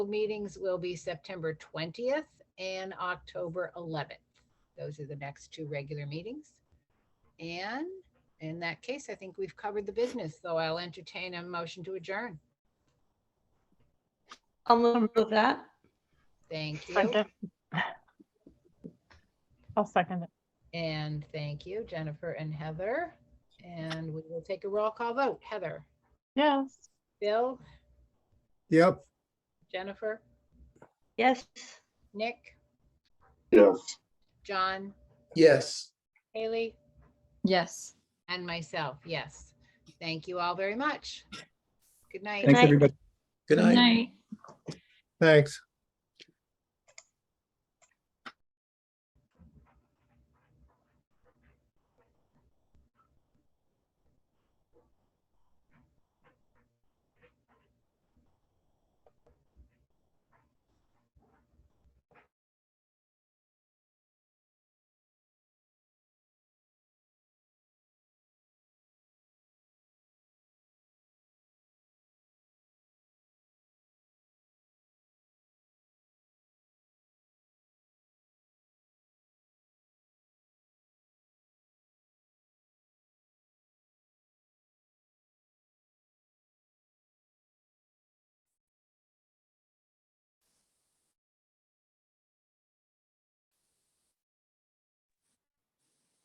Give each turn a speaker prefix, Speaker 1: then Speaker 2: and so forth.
Speaker 1: meetings will be September 20th and October 11th. Those are the next two regular meetings. And in that case, I think we've covered the business, so I'll entertain a motion to adjourn.
Speaker 2: I'll move that.
Speaker 1: Thank you.
Speaker 3: Second. I'll second it.
Speaker 1: And thank you, Jennifer and Heather. And we will take a roll call vote. Heather,
Speaker 3: Yes.
Speaker 1: Bill,
Speaker 4: Yep,
Speaker 1: Jennifer,
Speaker 2: Yes.
Speaker 1: Nick? Yes. John,
Speaker 5: Yes.
Speaker 1: Haley,
Speaker 6: Yes.
Speaker 1: and myself, yes. Thank you all very much. Good night.
Speaker 2: Good
Speaker 4: thanks,
Speaker 2: night.
Speaker 4: everybody.
Speaker 5: Good night.
Speaker 6: Night.
Speaker 4: Thanks.